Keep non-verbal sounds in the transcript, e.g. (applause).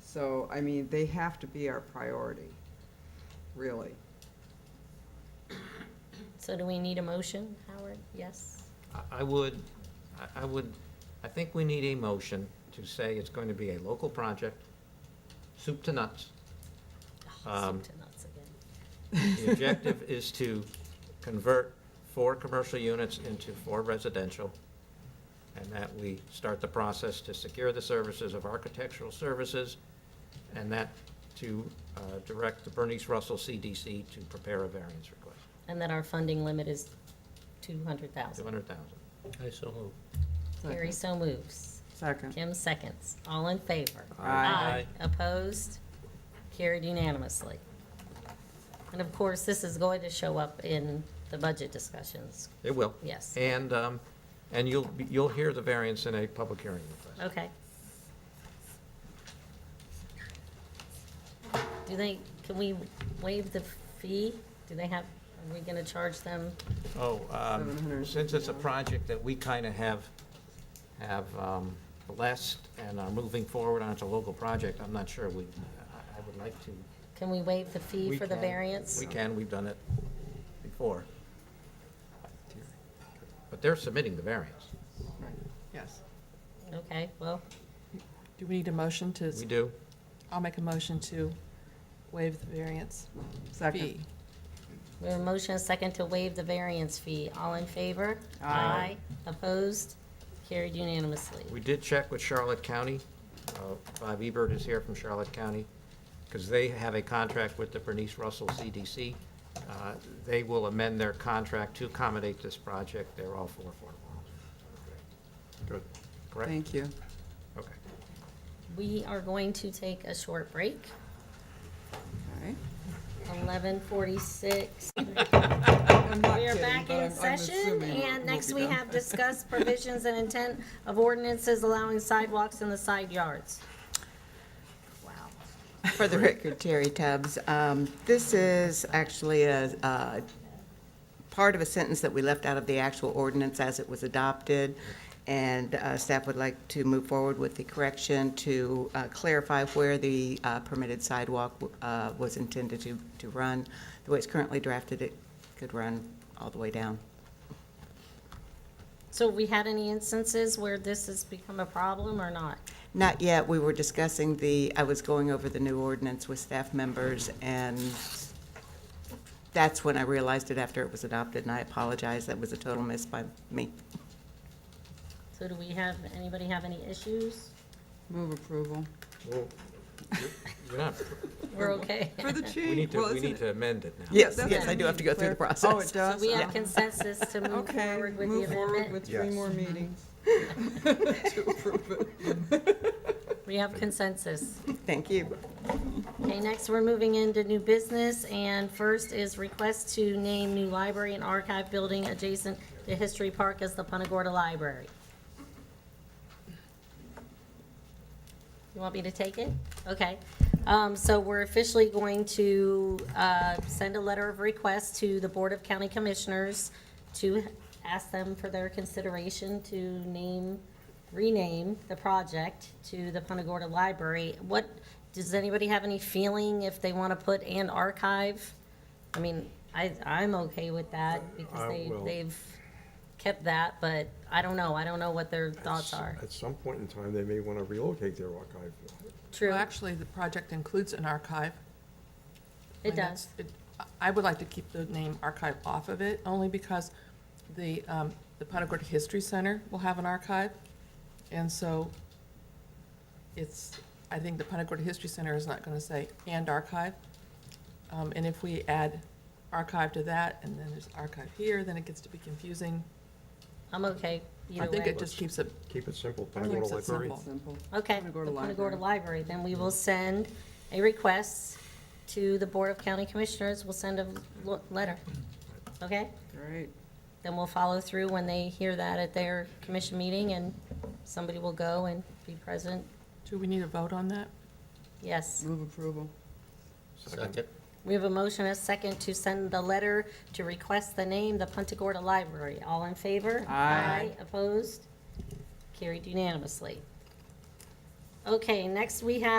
So, I mean, they have to be our priority, really. So do we need a motion, Howard? Yes? I- I would, I- I would, I think we need a motion to say it's going to be a local project, soup to nuts. Oh, Um, soup to nuts again. (laughs) The objective is to convert four commercial units into four residential, and that we start the process to secure the services of architectural services, and that to uh, direct the Bernice Russell CDC to prepare a variance request, And then our funding limit is two hundred thousand. 200,000. I so move. Carrie so moves. Second. Kim seconds. All in favor? Aye. Opposed? Carried unanimously. And of course, this is going to show up in the budget discussions. It will. Yes. And, um, and you'll, be- you'll hear the variance in a public hearing request. Okay. Do they, can we waive the fee? Do they have, are we gonna charge them? Oh, um, 750. since it's a project that we kind of have, have um, blessed and are moving forward on, it's a local project, I'm not sure we, I I would like to. Can we waive the fee we for the can- variance? We can, we've done it before. But they're submitting the variance. Yes. Okay, well, Do we need a motion to, We do. I'll make a motion to waive the variance fee. Second. we have a motion and second to waive the variance fee. All in favor? Aye. Opposed? Carried unanimously. We did check with Charlotte County. Uh, Bob Ebert is here from Charlotte County, because they have a contract with the Bernice Russell CDC. Uh, They will amend their contract to accommodate this project. They're all for affordable housing. Good. Correct? Thank you. Okay. We are going to take a short break, Okay. eleven (laughs) forty-six. I'm not We are kidding, back but I'm- I'm in session, assuming we'll- and we'll next be we done. have discussed provisions and intent of ordinances allowing sidewalks in the side yards. Wow. For the record, Terry Tubbs, um, this is actually a, a part of a sentence that we left out of the actual ordinance as it was adopted, and uh, staff would like to move forward with the correction to uh, clarify where the uh, permitted sidewalk uh, was intended to, to run. The way it's currently drafted, it could run all the way down. So have we had any instances where this has become a problem or not? Not yet. We were discussing the, I was going over the new ordinance with staff members, and that's when I realized it after it was adopted, and I apologize. That was a total miss by me. So do we have, anybody have any issues? Move approval. Well, you're- you're not- We're okay. (laughs) For the chief. (laughs) We need well, to, we isn't need it- to amend it now. Yes, that's yes, what I do have to go through the Claire- process. Oh, it does? So we have Yeah. consensus to move Okay, forward with the move forward amendment? with three Yes. more meetings. (laughs) We (laughs) have consensus. Thank you. Okay, next, we're moving into new business, and first is request to name new library and archive building adjacent to History Park as the Punta Gorda Library. You want me to take it? Okay. Um, so we're officially going to, uh, send a letter of request to the Board of County Commissioners to ask them for their consideration to name, rename the project to the Punta Gorda Library. What, does anybody have any feeling if they want to put an archive? I mean, I, I'm okay with that because I they, will. they've kept that, but I don't know. I don't know what their thoughts S- are. At some point in time, they may want to relocate their archive. True, Well, actually, the project includes an archive. it And that's- does. it- I would like to keep the name archive off of it, only because the, um, the Punta Gorda History Center will have an archive. And so it's, I think the Punta Gorda History Center is not gonna say, and archive. Um, and if we add archive to that, and then there's archive here, then it gets to be confusing. I'm okay I either think way. it just keeps it, Keep it simple, Punta Gorda keeps it Library. simple. Simple. Okay, Wanna the go to Punta library. Gorda Library, then we will send a request to the Board of County Commissioners, we'll send a lo- letter. Okay? Great. Then we'll follow through when they hear that at their commission meeting, and somebody will go and be present. Do we need a vote on that? Yes. Move approval. Second. We have a motion, and a second, to send the letter to request the name, the Punta Gorda Library. All in favor? Aye. Opposed? Carried unanimously. Okay, next we have